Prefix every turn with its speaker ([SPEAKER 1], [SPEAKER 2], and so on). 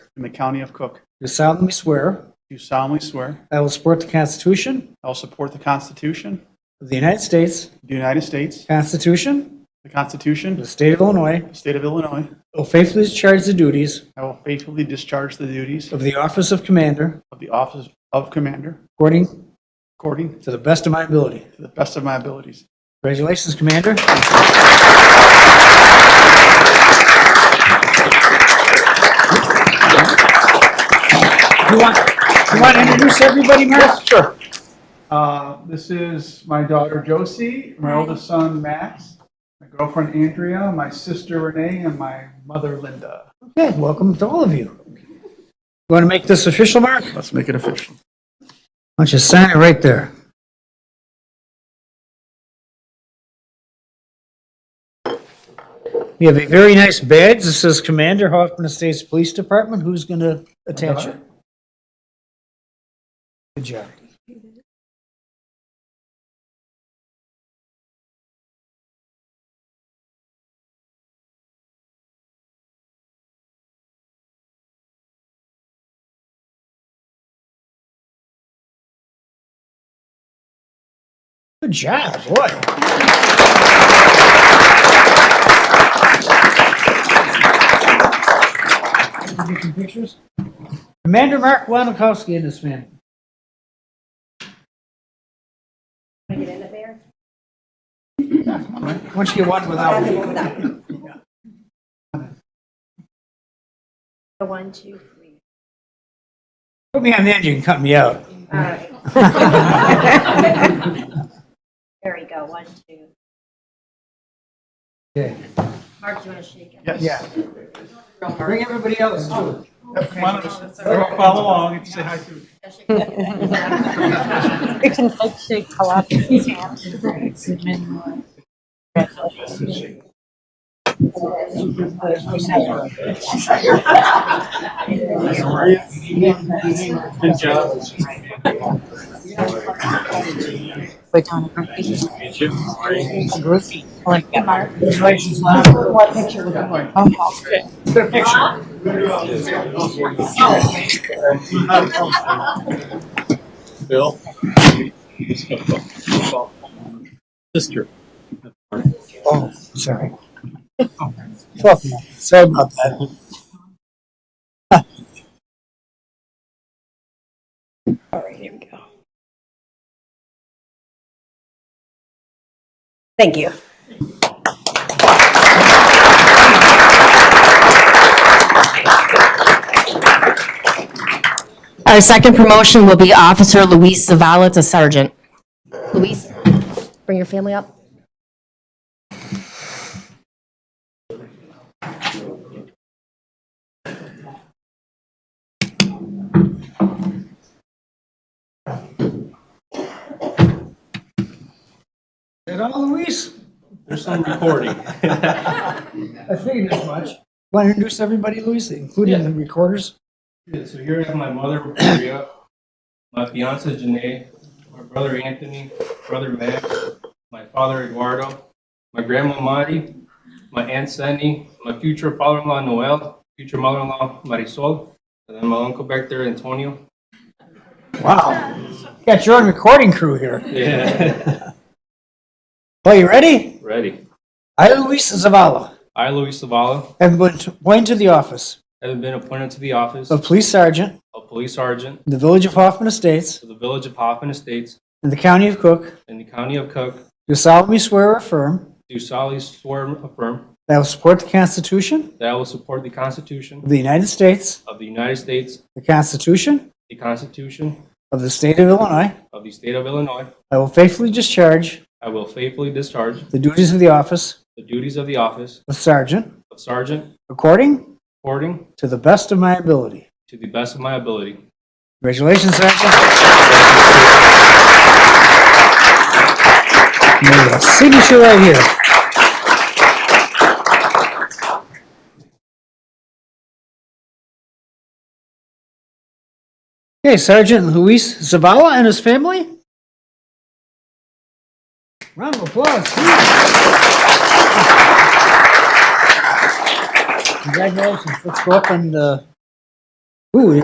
[SPEAKER 1] in the county of Cook.
[SPEAKER 2] do solemnly swear
[SPEAKER 1] Do solemnly swear
[SPEAKER 2] that I will support the Constitution
[SPEAKER 1] I will support the Constitution
[SPEAKER 2] of the United States,
[SPEAKER 1] of the United States,
[SPEAKER 2] Constitution
[SPEAKER 1] the
[SPEAKER 2] of
[SPEAKER 1] Constitution
[SPEAKER 2] the State of Illinois,
[SPEAKER 1] of the State of Illinois.
[SPEAKER 2] I will faithfully discharge the duties
[SPEAKER 1] I will faithfully discharge the duties
[SPEAKER 2] of the office of Commander
[SPEAKER 1] of the office of Commander
[SPEAKER 2] according
[SPEAKER 1] according
[SPEAKER 2] to the best of my ability.
[SPEAKER 1] to the best of my abilities.
[SPEAKER 2] Congratulations, Commander. You want, you want to introduce everybody, Mark? Sure.
[SPEAKER 1] Uh, This is my daughter Josie, my oldest son Max, my girlfriend Andrea, my sister Renee, and my mother Linda.
[SPEAKER 2] Okay, welcome to all of you. You Want to make this official, Mark? Why
[SPEAKER 1] Let's make it official.
[SPEAKER 2] don't you sign it right there? You have a very nice badge. This says Commander Hoffman Estates Police Department. Who's going to attach it? Good job. Good job, boy. Can we Get some pictures. Commander Mark Wanikowski and his family.
[SPEAKER 3] Can I get in it, Mayor?
[SPEAKER 2] Once you get one without?
[SPEAKER 3] Have it without. One, two, three.
[SPEAKER 2] Put me on the end, you can cut me out.
[SPEAKER 3] All right. There we go, one, two.
[SPEAKER 2] Okay.
[SPEAKER 3] Mark, do you want to shake it?
[SPEAKER 1] Yes.
[SPEAKER 2] Yeah. Bring everybody else too.
[SPEAKER 1] Come on, everyone follow along and say hi to.
[SPEAKER 4] It can like shake a lot.
[SPEAKER 1] Good job.
[SPEAKER 4] But on a group. A group, I like that. What picture? Oh, okay.
[SPEAKER 5] Bill. Sister.
[SPEAKER 2] Oh, sorry. Fuck, man. Oh, Sorry about that.
[SPEAKER 3] Thank you.
[SPEAKER 6] Our second promotion will be Officer Luis Zavala to Sergeant. Luis, bring your family up.
[SPEAKER 2] Is that all, "Oh, Luis?
[SPEAKER 5] There's some recording.
[SPEAKER 2] I figured as much. Want to introduce everybody, Luis, including the recorders?
[SPEAKER 7] Yeah, so here I have my mother, Maria, my fiance, Janae, my brother, Anthony, brother, Max, my father, Eduardo, my grandma, Mari, my aunt, Sandy, my future father-in-law, Noel, future mother-in-law, Marisol, and then my uncle back there, Antonio.
[SPEAKER 2] Wow. Got your own recording crew here.
[SPEAKER 7] Yeah.
[SPEAKER 2] Well, you ready?
[SPEAKER 7] Ready.
[SPEAKER 2] I, Luis Zavala,
[SPEAKER 7] I, Luis Zavala,
[SPEAKER 2] have been appointed to the office
[SPEAKER 7] have been appointed to the office
[SPEAKER 2] of
[SPEAKER 7] of
[SPEAKER 2] Police Sergeant
[SPEAKER 7] Police Sergeant
[SPEAKER 2] in the Village of Hoffman Estates
[SPEAKER 7] to the Village of Hoffman Estates
[SPEAKER 2] in the County of Cook.
[SPEAKER 7] in the County of Cook,
[SPEAKER 2] Do solemnly swear or affirm
[SPEAKER 7] do solemnly swear and affirm
[SPEAKER 2] that I will support the Constitution
[SPEAKER 7] that I will support the Constitution
[SPEAKER 2] of the United States,
[SPEAKER 7] of the United States
[SPEAKER 2] the Constitution
[SPEAKER 7] The Constitution
[SPEAKER 2] Of the State of Illinois.
[SPEAKER 7] of the State of Illinois.
[SPEAKER 2] I will faithfully discharge
[SPEAKER 7] I will faithfully discharge
[SPEAKER 2] the duties of the office
[SPEAKER 7] the duties of the office
[SPEAKER 2] of Sergeant
[SPEAKER 7] of Sergeant
[SPEAKER 2] according
[SPEAKER 7] according
[SPEAKER 2] to the best of my ability.
[SPEAKER 7] to the best of my ability.
[SPEAKER 2] Congratulations, Sergeant. There you go. Signature right here. Okay, Sergeant Luis Zavala and his family. Round of applause. Congratulations. Let's go up and uh,